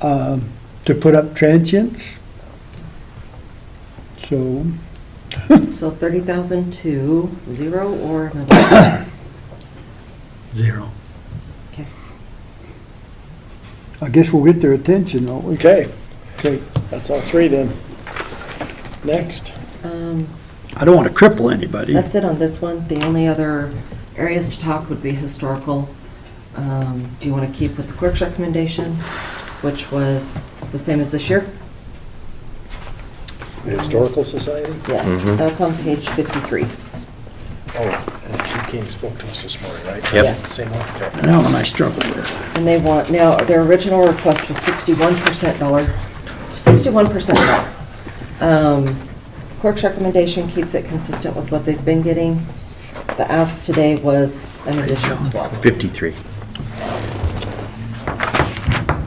um, to put up transients. So, So thirty thousand to zero or another? Zero. Okay. I guess we'll get their attention, won't we? Okay, Okay. that's all three then. Next. Um, I don't want to cripple anybody. That's it on this one. The only other areas to talk would be historical. Um, Do you want to keep with the clerk's recommendation, which was the same as this year? The Historical Society? Yes, Mhm. that's on page 53. Oh, and she came, spoke to us this morning, right? Yep. Yes. Same one, okay. That one I struggle with. And they want, now, their original request was 61% dollar, 61% dollar. Um, Clerk's recommendation keeps it consistent with what they've been getting. The ask today was an additional 12. 53.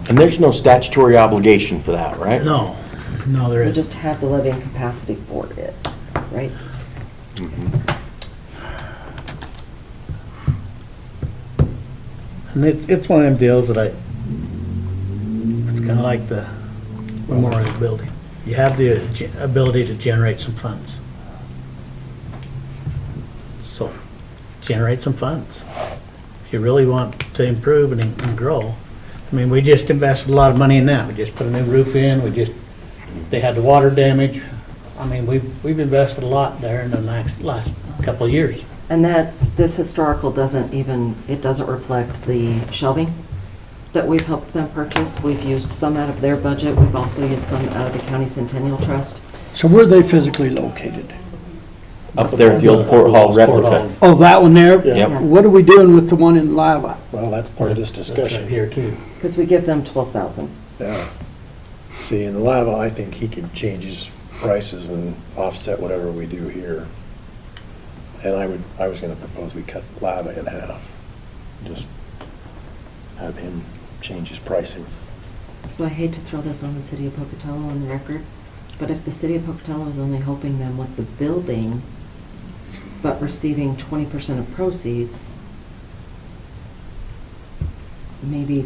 And there's no statutory obligation for that, right? No, no, there We is. just have the living capacity for it, right? And it's, it's one of them deals that I, it's kind of like the memorial building. You have the ge- ability to generate some funds. So, generate some funds. If you really want to improve and, and grow. I mean, we just invested a lot of money in that. We just put a new roof in, we just, they had the water damage. I mean, we've, we've invested a lot there in the last, last couple of years. And that's, this historical doesn't even, it doesn't reflect the shelving that we've helped them purchase. We've used some out of their budget, we've also used some out of the county centennial trust. So where are they physically located? Up there at the old Port Hall Port Hall. replica. Oh, that one there? Yep. Yeah. What are we doing with the one in Lava? Well, that's part of this That's discussion. right Here too. Because we give them 12,000. Yeah. See, in Lava, I think he could change his prices and offset whatever we do here. And I would, I was gonna propose we cut Lava in half. Just have him change his pricing. So I hate to throw this on the city of Pocatello on the record, but if the city of Pocatello is only helping them with the building, but receiving 20% of proceeds, maybe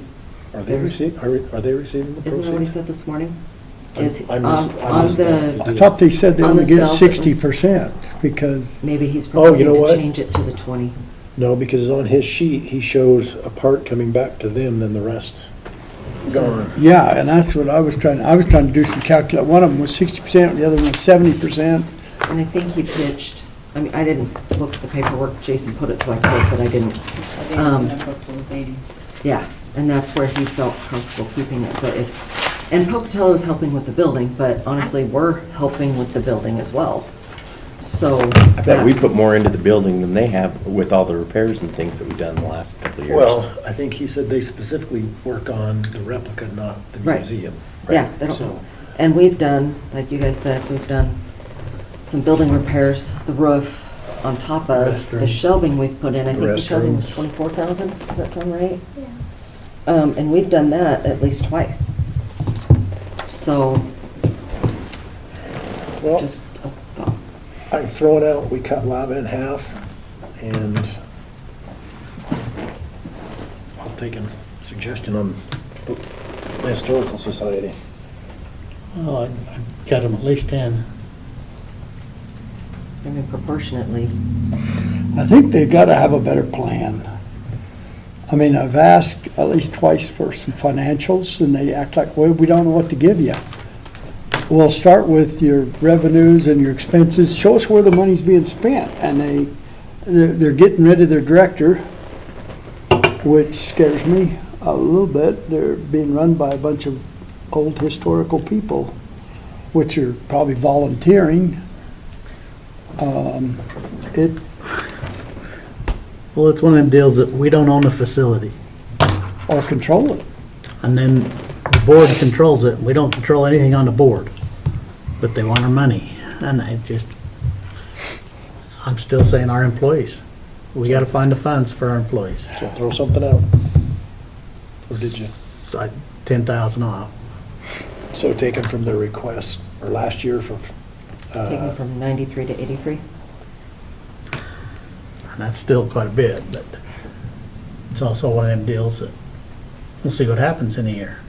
Are they There's- receiving, are they receiving the proceeds? Isn't that what he said this morning? I- Is, I on missed- I on missed that. the, I thought they said they On only the get cells, it was- sixty percent because, maybe he's Oh, you proposing know to what? change it to the 20. No, because on his sheet, he shows a part coming back to them, then the rest So- gone. yeah, and that's what I was trying, I was trying to do some calcul, one of them was sixty percent, the other one was seventy percent. And I think he pitched, I mean, I didn't look at the paperwork, Jason put it so I could, but I didn't. I think Um, the number was 80. Yeah, and that's where he felt comfortable keeping it, but if, and Pocatello is helping with the building, but honestly, we're helping with the building as well. So. I bet we put more into the building than they have with all the repairs and things that we've done in the last couple of years. Well, I think he said they specifically work on the replica, not the Right. museum. Yeah, they don't So- know. And we've done, like you guys said, we've done some building repairs, the roof on top of, the Restrooms. shelving we've put in. I think the shelving was Restrooms. 24,000, does that sound right? Um, and we've done that at least twice. So, Well, just a thought. I'm throwing out, we cut lava in half, and I'll take a suggestion on the Historical Society. Well, I- I've got them at least 10. I mean, proportionately, I think they've got to have a better plan. I mean, I've asked at least twice for some financials, and they act like, well, we don't know what to give you. Well, start with your revenues and your expenses, show us where the money's being spent, and they, they're, they're getting rid of their director, which scares me a little bit, they're being run by a bunch of old historical people, which are probably volunteering. Um, It, Well, it's one of them deals that we don't own the facility, or control it. and then the board controls it, we don't control anything on the board, but they want our money, and I just, I'm still saying our employees. We gotta find the funds for our employees, So throw something out. Or did you? so I, ten thousand off. So taken from their request, or last year from, Uh, taking from 93 to 83. And that's still quite a bit, but it's also one of them deals that, we'll see what happens in a year.